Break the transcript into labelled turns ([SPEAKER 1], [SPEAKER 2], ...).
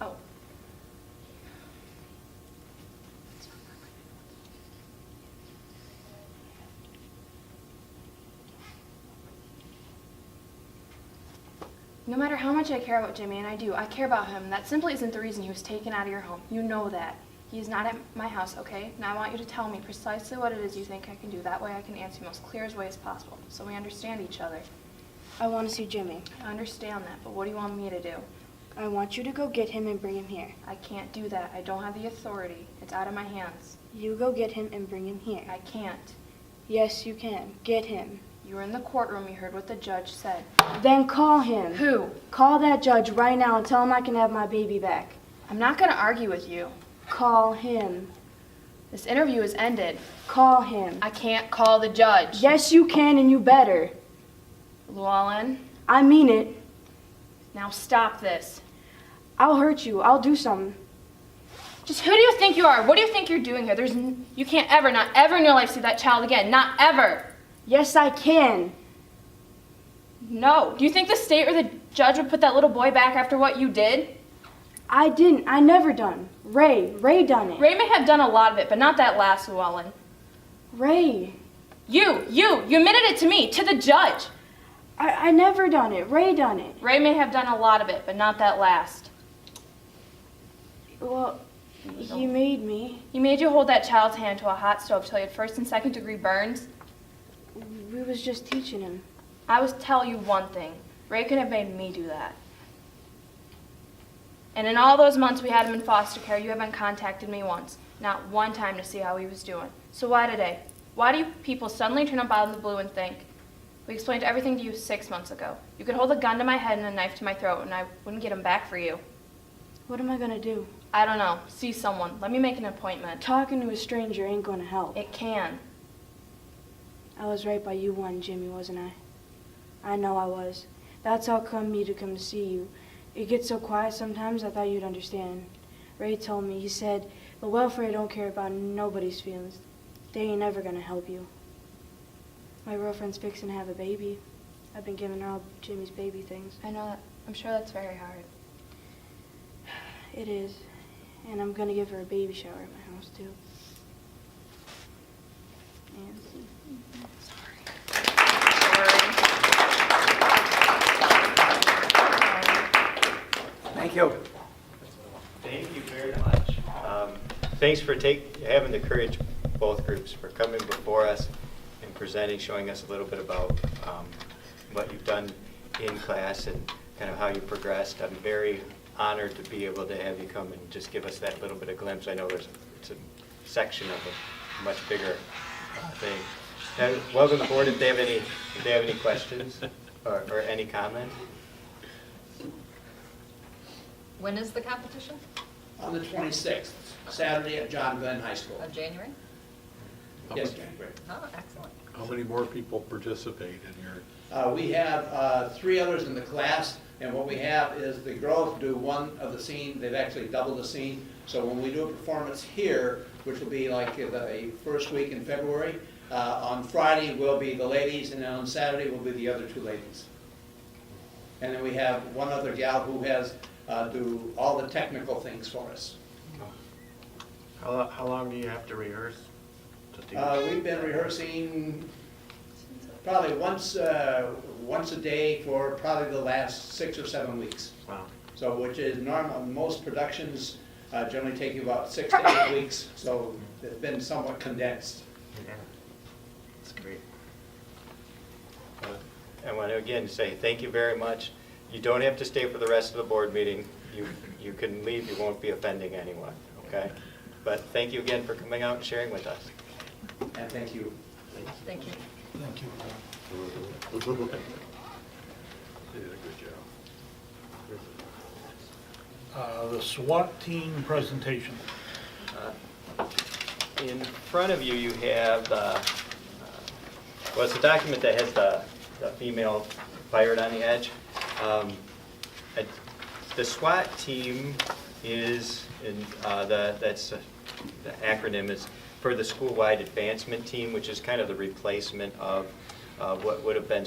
[SPEAKER 1] Oh. No matter how much I care about Jimmy, and I do, I care about him, that simply isn't the reason he was taken out of your home. You know that. He is not at my house, okay? Now I want you to tell me precisely what it is you think I can do. That way I can answer you most clear as way as possible, so we understand each other.
[SPEAKER 2] I want to see Jimmy.
[SPEAKER 1] I understand that, but what do you want me to do?
[SPEAKER 2] I want you to go get him and bring him here.
[SPEAKER 1] I can't do that. I don't have the authority. It's out of my hands.
[SPEAKER 2] You go get him and bring him here.
[SPEAKER 1] I can't.
[SPEAKER 2] Yes, you can. Get him.
[SPEAKER 1] You were in the courtroom. You heard what the judge said.
[SPEAKER 2] Then call him.
[SPEAKER 1] Who?
[SPEAKER 2] Call that judge right now and tell him I can have my baby back.
[SPEAKER 1] I'm not going to argue with you.
[SPEAKER 2] Call him.
[SPEAKER 1] This interview is ended.
[SPEAKER 2] Call him.
[SPEAKER 1] I can't call the judge.
[SPEAKER 2] Yes, you can and you better.
[SPEAKER 1] Llewellyn,
[SPEAKER 2] I mean it.
[SPEAKER 1] now stop this.
[SPEAKER 2] I'll hurt you. I'll do something.
[SPEAKER 1] Just who do you think you are? What do you think you're doing here? There's n- you can't ever, not ever in your life see that child again. Not ever.
[SPEAKER 2] Yes, I can.
[SPEAKER 1] No. Do you think the state or the judge would put that little boy back after what you did?
[SPEAKER 2] I didn't. I never done. Ray. Ray done it.
[SPEAKER 1] Ray may have done a lot of it, but not that last Llewellyn.
[SPEAKER 2] Ray.
[SPEAKER 1] You, you, you admitted it to me, to the judge.
[SPEAKER 2] I, I never done it. Ray done it.
[SPEAKER 1] Ray may have done a lot of it, but not that last.
[SPEAKER 2] Well, he made me.
[SPEAKER 1] He made you hold that child's hand to a hot stove till you had first and second degree burns.
[SPEAKER 2] We was just teaching him.
[SPEAKER 1] I was tell you one thing. Ray could have made me do that. And in all those months we had him in foster care, you haven't contacted me once. Not one time to see how he was doing. So why today? Why do you people suddenly turn up out of the blue and think? We explained everything to you six months ago. You could hold a gun to my head and a knife to my throat, and I wouldn't get him back for you.
[SPEAKER 2] What am I gonna do?
[SPEAKER 1] I don't know. See someone. Let me make an appointment.
[SPEAKER 2] Talking to a stranger ain't gonna help.
[SPEAKER 1] It can.
[SPEAKER 2] I was right by you one, Jimmy, wasn't I? I know I was. That's how come me to come to see you. It gets so quiet sometimes I thought you'd understand. Ray told me, he said, the welfare don't care about nobody's feelings. They ain't never gonna help you. My girlfriend's fixing to have a baby. I've been giving her all Jimmy's baby things.
[SPEAKER 1] I know that. I'm sure that's very hard.
[SPEAKER 2] It is. And I'm gonna give her a baby shower at my house too. And
[SPEAKER 3] Thank you.
[SPEAKER 4] Thank you very much. Um, Thanks for take, having the courage, both groups, for coming before us and presenting, showing us a little bit about um, what you've done in class and kind of how you progressed. I'm very honored to be able to have you come and just give us that little bit of glimpse. I know there's, it's a section of a much bigger uh, thing. And Welcome board, if they have any, if they have any questions or or any comment.
[SPEAKER 5] When is the competition?
[SPEAKER 6] On the 26th, Saturday at John Glenn High School.
[SPEAKER 5] Of Uh, January?
[SPEAKER 6] Yes, January.
[SPEAKER 5] Oh, excellent.
[SPEAKER 7] How many more people participate in your?
[SPEAKER 6] Uh, We have uh, three others in the class, and what we have is the girls do one of the scene, they've actually doubled the scene. So when we do a performance here, which will be like the first week in February, uh, on Friday will be the ladies, and then on Saturday will be the other two ladies. And then we have one other gal who has, uh, do all the technical things for us.
[SPEAKER 4] How, lo- how long do you have to rehearse? to do-
[SPEAKER 6] Uh, we've been rehearsing probably once, uh, once a day for probably the last six or seven weeks.
[SPEAKER 4] Wow.
[SPEAKER 6] So, which is normal, most productions uh, generally take you about six to eight weeks, so it's been somewhat condensed.
[SPEAKER 4] Yeah, That's great. I want to again say thank you very much. You don't have to stay for the rest of the board meeting. You, you can leave, you won't be offending anyone, okay? But thank you again for coming out and sharing with us.
[SPEAKER 6] And thank you.
[SPEAKER 5] Thank you.
[SPEAKER 7] You did a good job.
[SPEAKER 8] Uh, The SWAT team presentation.
[SPEAKER 4] In front of you, you have, uh, uh, well, it's a document that has the the female pirate on the edge. Um, I- The SWAT team is, in, uh, the that's, uh, the acronym is for the School-Wide Advancement Team, which is kind of the replacement of uh, what would have been